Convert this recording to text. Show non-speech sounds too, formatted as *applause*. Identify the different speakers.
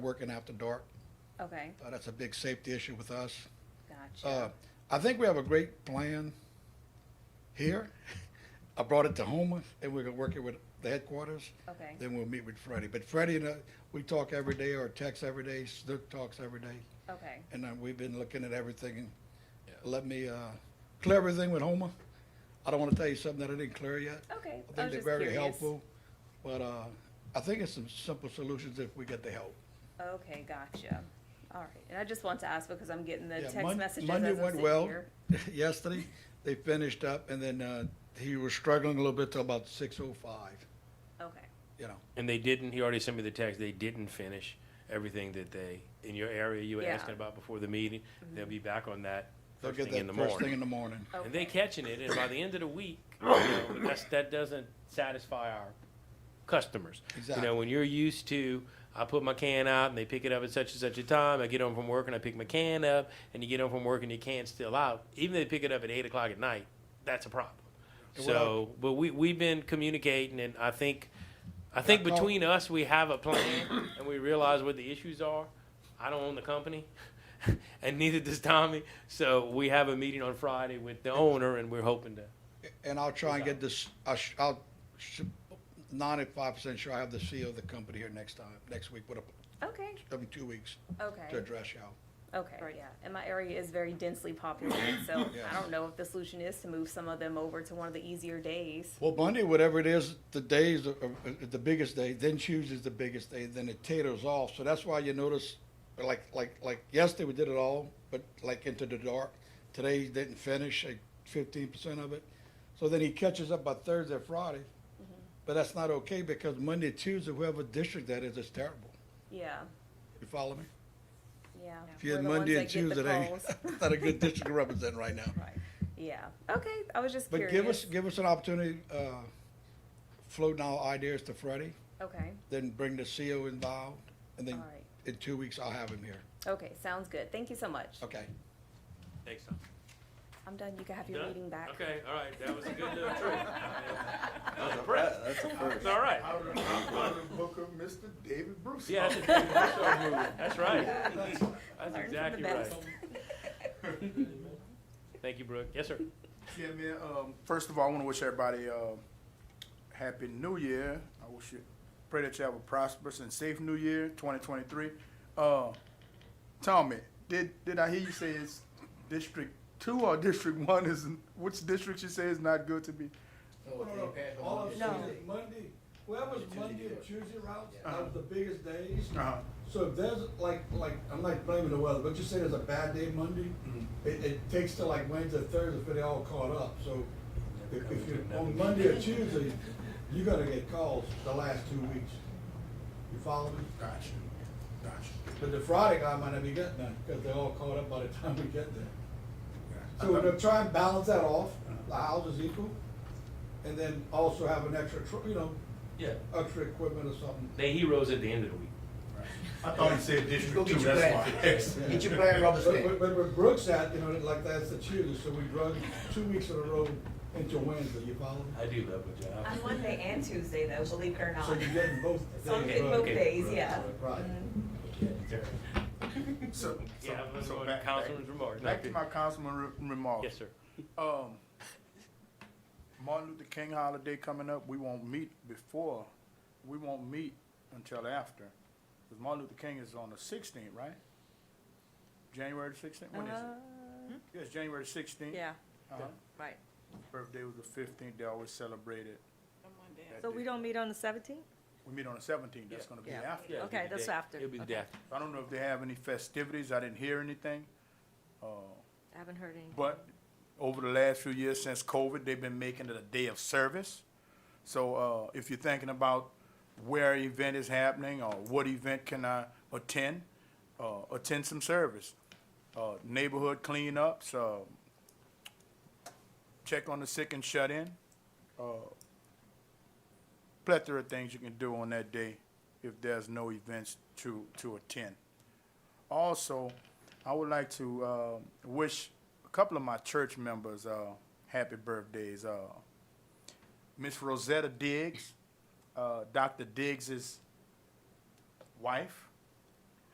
Speaker 1: working after dark.
Speaker 2: Okay,
Speaker 1: Uh, That's a big safety issue with us. Uh,
Speaker 2: gotcha.
Speaker 1: I think we have a great plan here. *laughs* I brought it to Homer, and we're gonna work it with the headquarters.
Speaker 2: Okay,
Speaker 1: Then we'll meet with Freddie. But Freddie and I, we talk every day or text every day, Snook talks every day.
Speaker 2: okay,
Speaker 1: And uh, we've been looking at everything. and
Speaker 3: Yeah.
Speaker 1: Let me uh, clear everything with Homer. I don't want to tell you something that I didn't clear yet.
Speaker 2: okay.
Speaker 1: I
Speaker 2: Oh, I
Speaker 1: think they're
Speaker 2: was just
Speaker 1: very
Speaker 2: curious.
Speaker 1: helpful. But uh, I think it's some simple solutions if we get the help.
Speaker 2: Okay, gotcha. All right, and I just want to ask because I'm getting the
Speaker 1: Yeah,
Speaker 2: text
Speaker 1: Mon-
Speaker 2: messages as
Speaker 1: Monday
Speaker 2: I'm
Speaker 1: went
Speaker 2: sitting
Speaker 1: well
Speaker 2: here.
Speaker 1: *laughs* yesterday. They finished up and then uh, he was struggling a little bit till about six oh five,
Speaker 2: Okay,
Speaker 1: you know.
Speaker 3: And they didn't, he already sent me the text, they didn't finish everything that they, in your area you were
Speaker 2: Yeah. Mm-hmm.
Speaker 3: asking about before the meeting. They'll be back on that
Speaker 1: They'll
Speaker 3: first
Speaker 1: get
Speaker 3: thing in
Speaker 1: that
Speaker 3: the
Speaker 1: first thing in
Speaker 3: morning.
Speaker 1: the morning.
Speaker 3: And they
Speaker 2: okay,
Speaker 3: catching it, and by the end of
Speaker 1: *coughs*
Speaker 3: the week, you know, that's, that doesn't satisfy our customers. You
Speaker 1: Exactly.
Speaker 3: know, when you're used to, I put my can out and they pick it up at such and such a time, I get home from work and I pick my can up, and you get home from work and your can's still out, even if they pick it up at eight o'clock at night, that's a problem.
Speaker 1: And what I-
Speaker 3: So, but we, we've been communicating and I think, I think
Speaker 1: I call-
Speaker 3: between us, we have a plan and we realize what the issues are. I don't own the company *laughs* and neither does Tommy. So we have a meeting on Friday with the owner and we're hoping to,
Speaker 1: And I'll try and get this, I sh- I'll, ninety-five percent sure I have the CEO of the company here next time, next week, what, a-
Speaker 2: okay,
Speaker 1: in two weeks to
Speaker 2: okay,
Speaker 1: address y'all.
Speaker 2: okay, yeah. And my area is very densely populated,
Speaker 1: *coughs*
Speaker 2: so
Speaker 1: Yeah.
Speaker 2: I don't know if the solution is to move some of them over to one of the easier days.
Speaker 1: Well, Monday, whatever it is, the days are, are- are the biggest day. Then Tuesday's the biggest day. Then it taters off. So that's why you notice, like like like yesterday we did it all, but like into the dark. Today didn't finish like fifteen percent of it. So then he catches up by Thursday, Friday.
Speaker 2: Mm-hmm.
Speaker 1: But that's not okay because Monday, Tuesday, whoever district that is, is terrible.
Speaker 2: Yeah,
Speaker 1: You follow me?
Speaker 2: yeah.
Speaker 1: If you
Speaker 2: We're
Speaker 1: had
Speaker 2: the ones
Speaker 1: Monday
Speaker 2: that
Speaker 1: and
Speaker 2: get the
Speaker 1: Tuesday, that ain't-
Speaker 2: calls.
Speaker 1: *laughs* that's not a good district to represent right now.
Speaker 2: *laughs* Right, yeah. Okay, I was just
Speaker 1: But
Speaker 2: curious.
Speaker 1: give us give us an opportunity. Uh, floating our ideas to Freddie.
Speaker 2: Okay,
Speaker 1: then bring the CO involved, and
Speaker 2: all
Speaker 1: then
Speaker 2: right.
Speaker 1: in two weeks, I'll have him here.
Speaker 2: Okay, sounds good. Thank you so much.
Speaker 1: Okay.
Speaker 3: thanks, Tom.
Speaker 2: I'm done. You can have your
Speaker 3: Done?
Speaker 2: meeting back.
Speaker 3: Okay, all right, that was a good little
Speaker 2: *laughs*
Speaker 3: trip. I was impressed.
Speaker 4: That- That's a
Speaker 3: It's
Speaker 4: first.
Speaker 3: all right.
Speaker 5: I would have booked up Mr. David Bruce.
Speaker 3: Yeah, that's, a- that's right. That's
Speaker 2: Learn from the
Speaker 3: exactly right.
Speaker 2: best.
Speaker 3: Thank you, Brooke. Yes, sir.
Speaker 5: Yeah, man, um, *laughs* first of all, I wanna wish everybody, uh, happy new year. I wish you, pray that you have a prosperous and safe new year, twenty twenty-three. Uh, Tommy, did, did I hear you say it's District Two or *laughs* District One is, which district you say is not good to be?
Speaker 1: All I'm saying
Speaker 2: No.
Speaker 1: is Monday, whoever's Monday or Tuesday routes,
Speaker 5: Uh-huh.
Speaker 1: are the biggest days.
Speaker 5: Uh-huh.
Speaker 1: So if there's, like, like, I'm not blaming the weather, but you say there's a bad day Monday, it, it takes till like Wednesday, Thursday for they all caught up, so if, if you're on Monday or Tuesday, you gotta get calls the last two weeks. You follow me?
Speaker 5: Gotcha, gotcha,
Speaker 1: But the Friday guy might not be getting none, because they're all caught up by the time we get there. So we're
Speaker 5: gotcha.
Speaker 1: gonna try and balance that off, the house is equal, and then also have an extra, tr- you know,
Speaker 3: Yeah,
Speaker 1: extra equipment or something.
Speaker 3: they heroes at the end of the week.
Speaker 5: I thought he said
Speaker 4: Go
Speaker 5: District
Speaker 4: get your plan. Get your plan, rubber
Speaker 1: But,
Speaker 4: stamp.
Speaker 1: but, but where Brooks at, you know, like that's the Tuesday, so we run two weeks in a row into Wednesday, you follow? me?
Speaker 3: I do love my job.
Speaker 6: *laughs* On Monday and Tuesday, though, believe it or not.
Speaker 1: So you're getting both
Speaker 6: So I'm
Speaker 1: days
Speaker 6: getting both
Speaker 1: run.
Speaker 3: Okay.
Speaker 6: days, yeah. Mm-hmm.
Speaker 1: Right.
Speaker 5: *laughs* So, so,
Speaker 3: Yeah, I'm
Speaker 5: so
Speaker 3: going
Speaker 5: back, back,
Speaker 3: Councilman's remarks.
Speaker 5: back to my councilman re- remarks.
Speaker 3: Yes, sir.
Speaker 5: Um, Martin Luther King holiday coming up, we won't meet before, we won't meet until after. Because Martin Luther King is on the sixteenth, right? January the sixteenth,
Speaker 6: Uh,
Speaker 5: when is it? Hmm? Yes, January sixteenth.
Speaker 7: Uh-huh. Yeah,
Speaker 5: Uh-huh.
Speaker 7: right.
Speaker 5: Birthday was the fifteenth, they always celebrate it. that
Speaker 7: So we
Speaker 5: day.
Speaker 7: don't meet on the seventeenth?
Speaker 5: We meet on the seventeenth, that's gonna be
Speaker 7: Yeah.
Speaker 5: after.
Speaker 3: Yeah,
Speaker 7: Okay,
Speaker 3: it'll be the
Speaker 7: that's
Speaker 3: day-
Speaker 7: after.
Speaker 3: It'll be the
Speaker 7: Okay.
Speaker 3: day after.
Speaker 5: I don't know if they have any festivities, I didn't hear anything. Uh,
Speaker 7: I haven't heard any.
Speaker 5: But over the last few years since COVID, they've been making it a day of service. So uh, if you're thinking about where an event is happening or what event can I attend, uh, attend some service. Uh, neighborhood cleanups, uh, check on the sick and shut in. Uh, plethora of things you can do on that day if there's no events to, to attend. Also, I would like to uh, wish a couple of my church members uh, happy birthdays. Uh, Miss Rosetta Diggs, uh, Dr. Diggs's wife,